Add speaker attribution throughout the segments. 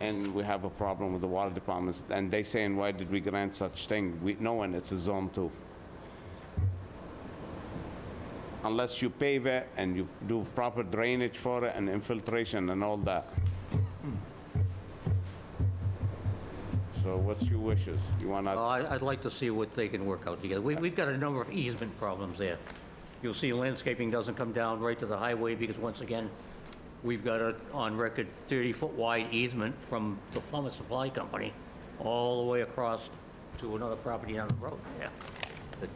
Speaker 1: and we have a problem with the water departments. And they saying, why did we grant such thing? We, knowing it's a zone two. Unless you pave it and you do proper drainage for it and infiltration and all that. So what's your wishes? You
Speaker 2: Uh,
Speaker 1: wanna,
Speaker 2: I- I'd like to see what they can work out together. We- We've got a number of easement problems there. You'll see landscaping doesn't come down right to the highway because once again, we've got a, on record, 30-foot wide easement from the plumber supply company all the way across to another property down the road there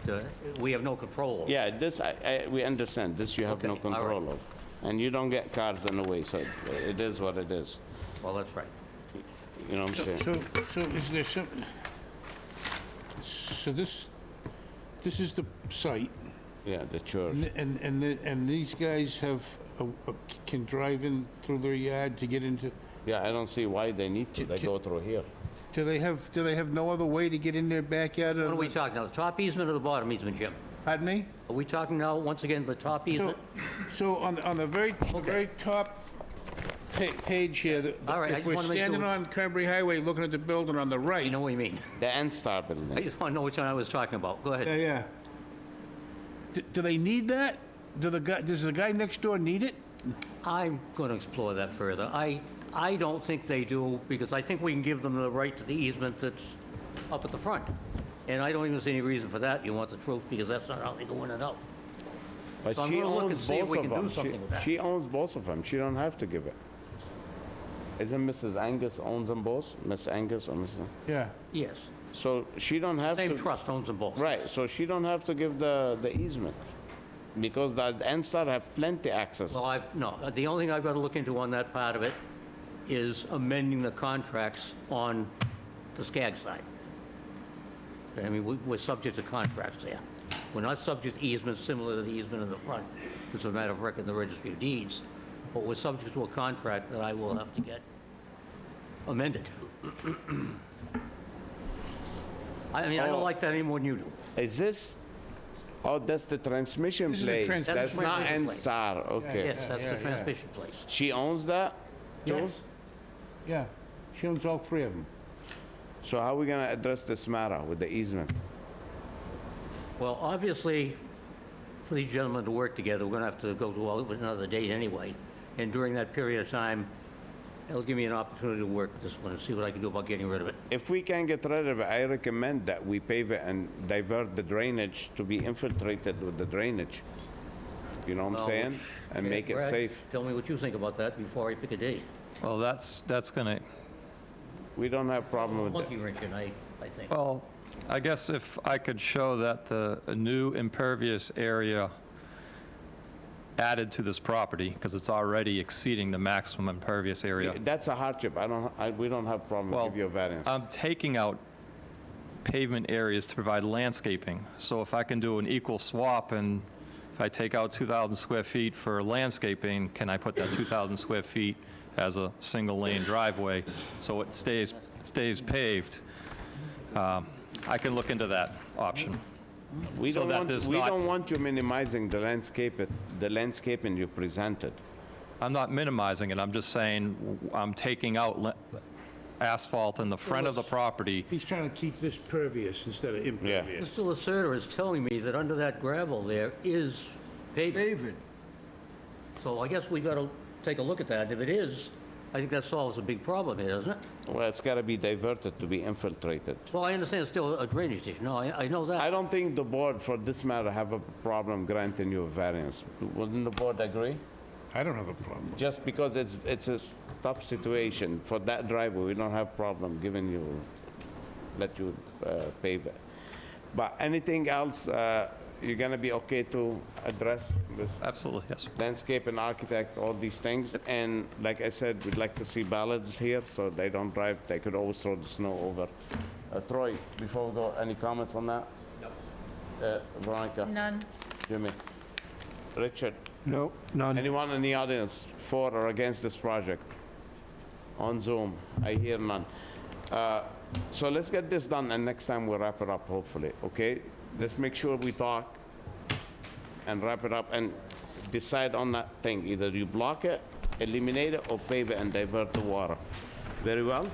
Speaker 2: that uh, we have no control over.
Speaker 1: yeah, this, I, I, we understand, this you have no
Speaker 2: Okay, all right.
Speaker 1: control of. And you don't get cars in the way, so it is what it is.
Speaker 2: Well, that's right.
Speaker 1: You know what I'm saying?
Speaker 3: So, so is there some, so this, this is the site,
Speaker 1: Yeah, the church.
Speaker 3: and, and- and, the- and these guys have, a- a- can drive in through their yard to get into,
Speaker 1: Yeah, I don't see why they need to. They go through here.
Speaker 3: do they have, do they have no other way to get in their backyard?
Speaker 2: What are
Speaker 3: other-
Speaker 2: we talking now, the top easement or the bottom easement, Jim?
Speaker 3: Pardon me?
Speaker 2: Are we talking now, once again, the top easement?
Speaker 3: So, so on, the- on the very, the very top pa- page here, the-
Speaker 2: All right, I
Speaker 3: if
Speaker 2: just
Speaker 3: we're
Speaker 2: wanna make sure
Speaker 3: standing
Speaker 2: we-
Speaker 3: on Cranberry Highway looking at the building on the
Speaker 2: You
Speaker 3: right.
Speaker 2: know what you mean.
Speaker 1: The N-Star
Speaker 2: I
Speaker 1: building.
Speaker 2: just want to know which one I was talking about. Go ahead.
Speaker 3: Yeah, yeah. Do, do they need that? Do the guy, does the guy next door need it?
Speaker 2: I'm going to explore that further. I, I don't think they do, because I think we can give them the right to the easement that's up at the front. And I don't even see any reason for that, you want the truth, because that's not how they go in and out.
Speaker 1: But
Speaker 2: So I'm
Speaker 1: she
Speaker 2: gonna look and
Speaker 1: owns
Speaker 2: see if
Speaker 1: both
Speaker 2: we
Speaker 1: of
Speaker 2: can do
Speaker 1: them. She-
Speaker 2: something with that.
Speaker 1: She owns both of them. She don't have to give it. Isn't Mrs. Angus owns them both? Miss Angus or Mrs.?
Speaker 3: Yeah.
Speaker 2: Yes,
Speaker 1: So she don't have to...
Speaker 2: same trust owns them both.
Speaker 1: Right, so she don't have to give the, the easement. Because the N-Star have plenty access.
Speaker 2: Well, I've, no, the only thing I've got to look into on that part of it is amending the contracts on the Skag side. I mean, we- we're subject to contracts there. We're not subject to easements similar to the easement in the front. It's a matter of record in the registry of deeds, but we're subject to a contract that I will have to get amended. I mean, I
Speaker 1: Oh.
Speaker 2: don't like that any more than you do.
Speaker 1: Is this... Oh, that's the transmission
Speaker 3: This is the
Speaker 1: place.
Speaker 3: trans- That's
Speaker 1: That's
Speaker 2: the
Speaker 1: not
Speaker 2: transmission place.
Speaker 1: N-Star, okay.
Speaker 2: Yes,
Speaker 3: yeah,
Speaker 2: that's
Speaker 3: yeah,
Speaker 2: the
Speaker 3: yeah.
Speaker 2: transmission place.
Speaker 1: She owns that? too?
Speaker 2: Yes.
Speaker 3: Yeah. She owns all three of them.
Speaker 1: So how we gonna address this matter with the easement?
Speaker 2: Well, obviously, for these gentlemen to work together, we're going to have to go to all- with another date anyway. And during that period of time, it'll give me an opportunity to work this one and see what I can do about getting rid of it.
Speaker 1: If we can get rid of it, I recommend that we pave it and divert the drainage to be infiltrated with the drainage. You know what I'm
Speaker 2: Well,
Speaker 1: saying?
Speaker 2: which-
Speaker 1: And make it
Speaker 2: Brad,
Speaker 1: safe.
Speaker 2: Tell me what you think about that before I pick a date.
Speaker 4: Well, that's, that's going to,
Speaker 1: We don't have problem with
Speaker 2: Monkey
Speaker 1: it.
Speaker 2: wrench, and I, I think.
Speaker 4: well, I guess if I could show that the new impervious area added to this property, because it's already exceeding the maximum impervious area.
Speaker 1: That's a hardship. I don't, I, we don't have problem
Speaker 4: Well, uh,
Speaker 1: with your variance.
Speaker 4: I'm taking out pavement areas to provide landscaping. So if I can do an equal swap and if I take out 2,000 square feet for landscaping, can I put that 2,000 square feet as a single lane driveway so it stays, stays paved? Um, I can look into that option.
Speaker 1: We
Speaker 4: so
Speaker 1: don't
Speaker 4: that
Speaker 1: want,
Speaker 4: is
Speaker 1: we
Speaker 4: not-
Speaker 1: don't want you minimizing the landscape, it- the landscaping you presented.
Speaker 4: I'm not minimizing it, I'm just saying w- I'm taking out la- asphalt in the front of the property.
Speaker 3: He's trying to keep this pervious instead of impervious.
Speaker 2: Mr. Lacerda is telling me that under that gravel there is pavement.
Speaker 3: David.
Speaker 2: So I guess we got to take a look at that. If it is, I think that solves a big problem here, doesn't it?
Speaker 1: Well, it's gotta be diverted to be infiltrated.
Speaker 2: Well, I understand it's still a drainage issue. No, I, I know that.
Speaker 1: I don't think the board, for this matter, have a problem granting you a variance. Wouldn't the board agree?
Speaker 3: I don't have a problem. with
Speaker 1: Just because it's, it's a tough situation for that driveway, we don't have problem giving you, let you uh, pave it. But anything else, uh, you're gonna be okay to address with
Speaker 4: Absolutely, yes.
Speaker 1: landscape and architect, all these things? And like I said, we'd like to see ballads here, so they don't drive, they could always throw the snow over. Uh, Troy, before we go, any comments on that? No. Veronica?
Speaker 5: None.
Speaker 1: Jimmy? Richard?
Speaker 6: No, none.
Speaker 1: Anyone in the audience for or against this project? On Zoom, I hear none. Uh, So let's get this done, and next time we'll wrap it up, hopefully, okay? Let's make sure we talk and wrap it up and decide on that thing. Either you block it, eliminate it, or pave it and divert the water. Very well?